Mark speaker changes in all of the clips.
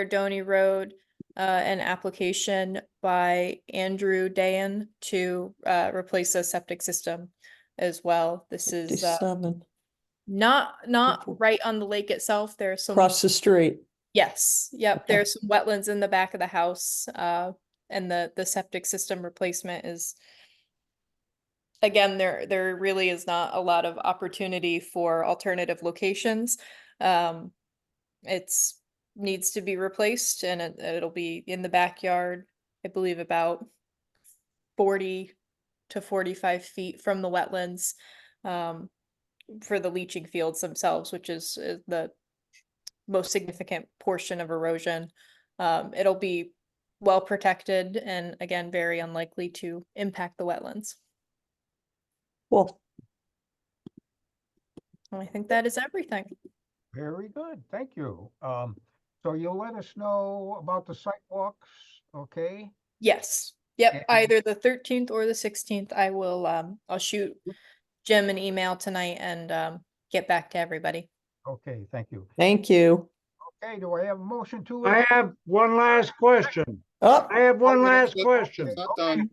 Speaker 1: Erdoney Road, uh, an application by Andrew Dayan to, uh, replace a septic system as well. This is, uh,
Speaker 2: Fifty-seven,
Speaker 1: not, not
Speaker 2: Fifty.
Speaker 1: right on the lake itself. There are some.
Speaker 2: across the street.
Speaker 1: Yes, yep,
Speaker 2: Okay.
Speaker 1: there's some wetlands in the back of the house, uh, and the, the septic system replacement is. Again, there, there really is not a lot of opportunity for alternative locations. Um, it's, needs to be replaced and it, it'll be in the backyard, I believe about forty to forty-five feet from the wetlands, um, for the leaching fields themselves, which is, is the most significant portion of erosion. Um, it'll be well protected and again, very unlikely to impact the wetlands.
Speaker 2: Well,
Speaker 1: And I think that is everything.
Speaker 3: Very good, thank you. Um, so you'll let us know about the sidewalks, okay?
Speaker 1: Yes,
Speaker 3: Yeah.
Speaker 1: yep, either the thirteenth or the sixteenth, I will, um, I'll shoot Jim an email tonight and, um, get back to everybody.
Speaker 3: Okay, thank you.
Speaker 2: thank you.
Speaker 3: Okay, do I have a motion to?
Speaker 4: I have one last question.
Speaker 2: Oh,
Speaker 4: I have one
Speaker 5: Oh,
Speaker 4: last
Speaker 5: that's-
Speaker 4: question.
Speaker 5: Not done.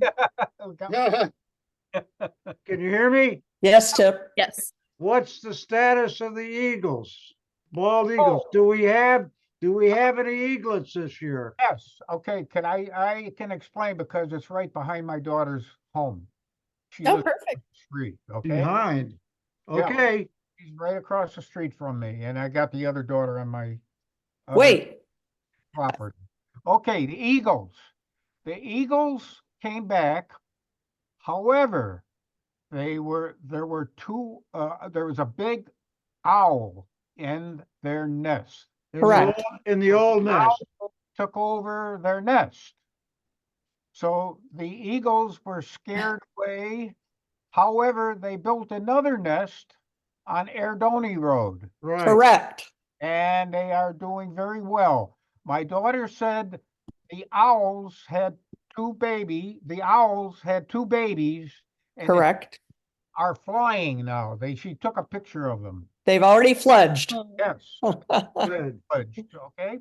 Speaker 3: Okay,
Speaker 5: Yeah,
Speaker 4: Can you hear me?
Speaker 2: yes, Tip.
Speaker 1: Yes.
Speaker 4: What's the status of the Eagles? Bald Eagles?
Speaker 3: Oh.
Speaker 4: Do we have, do we have any eaglets this year?
Speaker 3: Yes, okay, can I, I can explain because it's right behind my daughter's home. She
Speaker 1: Oh,
Speaker 3: lives
Speaker 1: perfect.
Speaker 3: street, okay?
Speaker 4: Behind.
Speaker 3: Yeah.
Speaker 4: Okay,
Speaker 3: She's right across the street from me and I got the other daughter on my. other
Speaker 2: Wait,
Speaker 3: property. Okay, the Eagles. The Eagles came back. However, they were, there were two, uh, there was a big owl in their nest.
Speaker 4: in the
Speaker 2: Correct.
Speaker 4: old- in the old nest.
Speaker 3: Owl Took over their nest. So the Eagles were scared away. However, they built another nest on Erdoney Road
Speaker 4: Right.
Speaker 2: correct.
Speaker 3: and they are doing very well. My daughter said the owls had two baby, the owls had two babies. and they
Speaker 2: Correct.
Speaker 3: Are flying now. They, she took a picture of them.
Speaker 2: They've already fledged.
Speaker 3: Yes,
Speaker 4: Good.
Speaker 3: fudged, okay?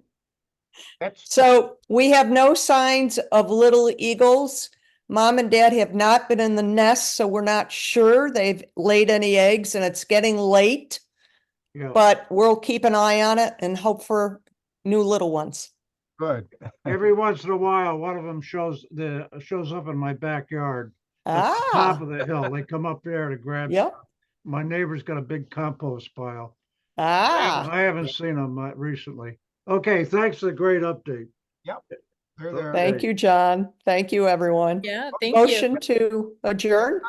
Speaker 3: That's,
Speaker 2: So we have no signs of little eagles. Mom and dad have not been in the nest, so we're not sure they've laid any eggs and it's getting late.
Speaker 4: Yeah.
Speaker 2: But we'll keep an eye on it and hope for new little ones.
Speaker 3: good.
Speaker 4: Every once in a while, one of them shows the, shows up in my backyard. at the Top
Speaker 2: Ah,
Speaker 4: of the hill. They come up there to grab.
Speaker 2: yep.
Speaker 4: My neighbor's got a big compost pile.
Speaker 2: Ah,
Speaker 4: I haven't seen them uh, recently. Okay, thanks for the great update.
Speaker 3: They're there.
Speaker 2: thank you, John. Thank you, everyone.
Speaker 1: Yeah, thank you.
Speaker 2: Motion to adjourn?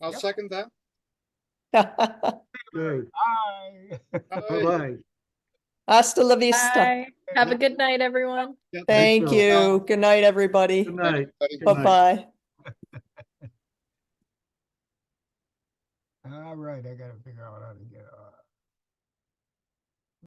Speaker 5: I'll second that.
Speaker 4: Good.
Speaker 3: Bye.
Speaker 5: Aye.
Speaker 4: Bye-bye.
Speaker 2: Hasta la vista.
Speaker 1: Bye. Have a good night, everyone.
Speaker 5: Yeah,
Speaker 2: Thank
Speaker 4: you.
Speaker 2: you. Good night, everybody.
Speaker 4: Good night.
Speaker 5: everybody.
Speaker 4: Good night.
Speaker 2: Bye-bye.
Speaker 3: All right, I gotta figure out how to get, uh.